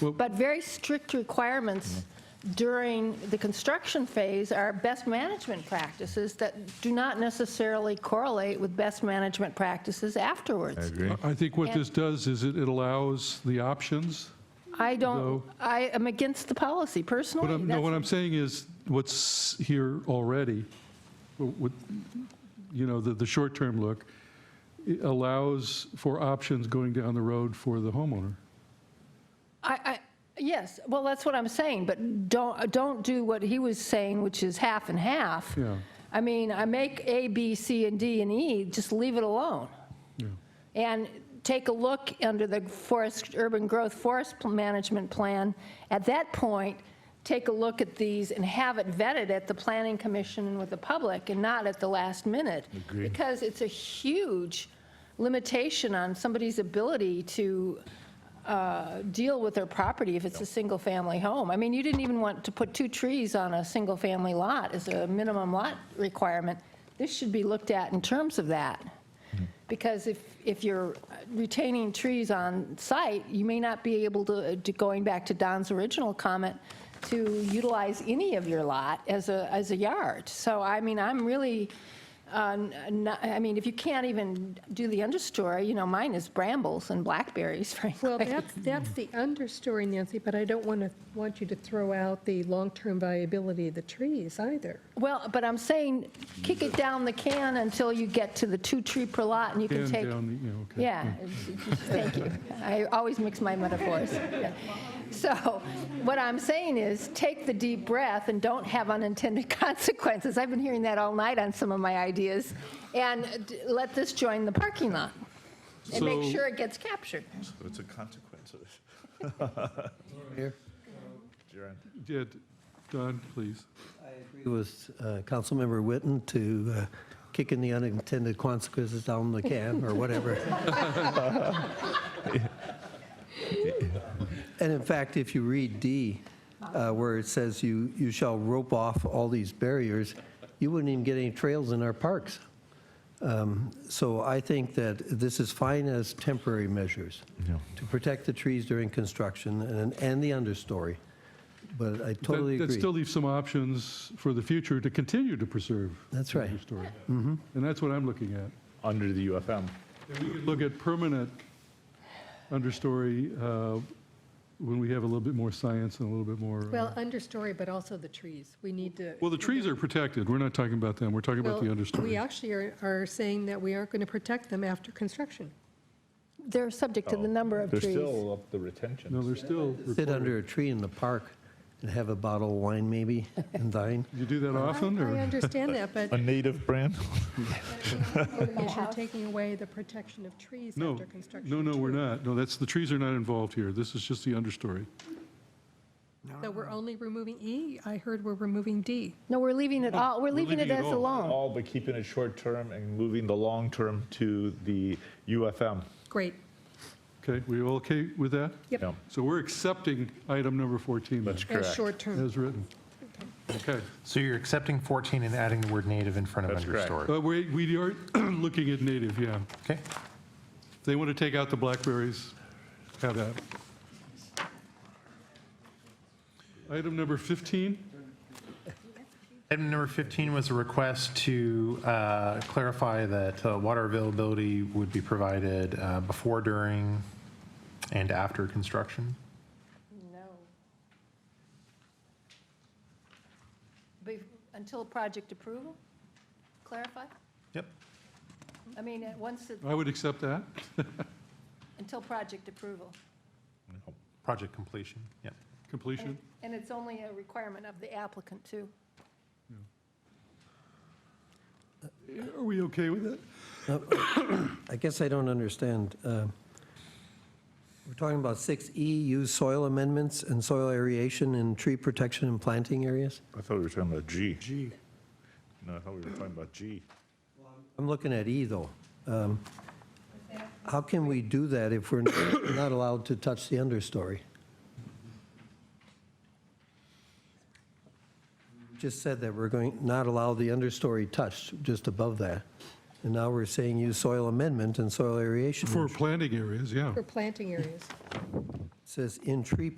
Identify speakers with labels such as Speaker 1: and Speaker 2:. Speaker 1: But very strict requirements
Speaker 2: Mm-hmm.
Speaker 1: during the construction phase are best management practices that do not necessarily correlate with best management practices afterwards.
Speaker 3: agree.
Speaker 2: I think what this does is it it allows the options.
Speaker 1: I
Speaker 2: No.
Speaker 1: don't, I am against the policy
Speaker 2: What
Speaker 1: personally.
Speaker 2: I'm, no,
Speaker 1: That's-
Speaker 2: what I'm saying is what's here already, what, you know, the, the short-term look, it allows for options going down the road for the homeowner.
Speaker 1: I, I, yes, well, that's what I'm saying, but don't, don't do what he was saying, which is half and half.
Speaker 2: Yeah.
Speaker 1: I mean, I make A, B, C, and D, and E, just leave it alone.
Speaker 2: Yeah.
Speaker 1: And take a look under the forest, urban growth forest pl- management plan. At that point, take a look at these and have it vetted at the planning commission and with the public and not at the last minute.
Speaker 3: Agreed.
Speaker 1: Because it's a huge limitation on somebody's ability to uh, deal with their property if it's a single-family home. I mean, you didn't even want to put two trees on a single-family lot as a minimum lot requirement. This should be looked at in terms of that. Because if, if you're retaining trees on site, you may not be able to, to- going back to Don's original comment, to utilize any of your lot as a, as a yard. So, I mean, I'm really, uh, n- n- I mean, if you can't even do the understory, you know, mine is brambles and blackberries, frankly.
Speaker 4: Well, that's, that's the understory, Nancy, but I don't want to, want you to throw out the long-term viability of the trees either.
Speaker 1: Well, but I'm saying, kick it down the can until you get to the two tree per lot, and you can
Speaker 2: And
Speaker 1: take,
Speaker 2: down the- yeah, okay.
Speaker 1: yeah, it's- it's- thank you. I always mix my metaphors. Yeah. So what I'm saying is, take the deep breath and don't have unintended consequences. I've been hearing that all night on some of my ideas. And d- let this join the parking lot, and make
Speaker 2: So-
Speaker 1: sure it gets captured.
Speaker 3: So it's a consequence of this. Jaren.
Speaker 2: Yeah, Don, please.
Speaker 5: agree with uh, Councilmember Witten to uh, kick in the unintended consequences down the can or whatever. And in fact, if you read D, uh, where it says you, you shall rope off all these barriers, you wouldn't even get any trails in our parks. Um, So I think that this is fine as temporary measures to protect the trees during construction and, and the understory. But I
Speaker 2: That-
Speaker 5: totally agree.
Speaker 2: That still leaves some options for the future to continue to preserve.
Speaker 5: That's
Speaker 2: the
Speaker 5: right. Mm-hmm.
Speaker 2: understory. And that's what I'm looking at.
Speaker 3: Under the UFM.
Speaker 2: And we could look at permanent understory uh, when we have a little bit more science and a little bit more. uh,
Speaker 4: Well, understory, but also the trees. We need to.
Speaker 2: Well, the trees are protected. We're not talking about them. We're talking about the
Speaker 4: Well, We
Speaker 2: understory.
Speaker 4: actually are, are saying that we aren't going to protect them after construction.
Speaker 1: They're subject to the number of
Speaker 3: They're
Speaker 1: trees.
Speaker 3: still up the
Speaker 2: No,
Speaker 3: retention.
Speaker 2: they're still,
Speaker 5: sit under a tree in the park and have a bottle of wine maybe and dine.
Speaker 2: you do that
Speaker 4: I-
Speaker 2: often
Speaker 4: I
Speaker 2: or?
Speaker 4: understand that, but
Speaker 3: A native brand?
Speaker 4: is you're taking away the protection of trees
Speaker 2: No,
Speaker 4: after construction.
Speaker 2: no, no, we're
Speaker 4: too.
Speaker 2: not. No, that's, the trees are not involved here. This is just the understory.
Speaker 4: So we're only removing E? I heard we're removing D.
Speaker 1: No, we're leaving it all, we're leaving it as
Speaker 2: all.
Speaker 1: alone.
Speaker 3: All but keeping it short-term and moving the long-term to the UFM.
Speaker 4: Great.
Speaker 2: Okay, we all okay with that?
Speaker 4: Yep.
Speaker 3: Yeah,
Speaker 2: So we're accepting item number 14 then,
Speaker 3: That's
Speaker 4: As
Speaker 3: correct.
Speaker 4: short-term.
Speaker 2: as written. Okay,
Speaker 6: So you're accepting 14 and adding the word native in front of
Speaker 3: That's correct.
Speaker 6: understory?
Speaker 2: Uh, we, we are looking at native, yeah.
Speaker 6: Okay.
Speaker 2: They want to take out the blackberries, have that. Item number 15,
Speaker 6: Item number 15 was a request to uh, clarify that uh, water availability would be provided uh, before, during, and after construction.
Speaker 1: No. Be- Until project approval? Clarify?
Speaker 6: Yep.
Speaker 1: I mean, uh, once, it-
Speaker 2: I would accept that.
Speaker 1: until project approval.
Speaker 6: Project completion, yep.
Speaker 2: Completion,
Speaker 1: And it's only a requirement of the applicant, too.
Speaker 2: are we okay with that?
Speaker 5: I guess I don't understand. uh, We're talking about 6E, use soil amendments and soil aeration in tree protection and planting areas?
Speaker 3: I thought we were talking about G. G. No, I thought we were talking about G.
Speaker 5: I'm looking at E, though. Um, How can we do that if we're not allowed to touch the understory? Just said that we're going, not allow the understory touched, just above that. And now we're saying use soil amendment and soil aeration.
Speaker 2: For planting areas, yeah.
Speaker 4: For planting areas.
Speaker 5: It Says in tree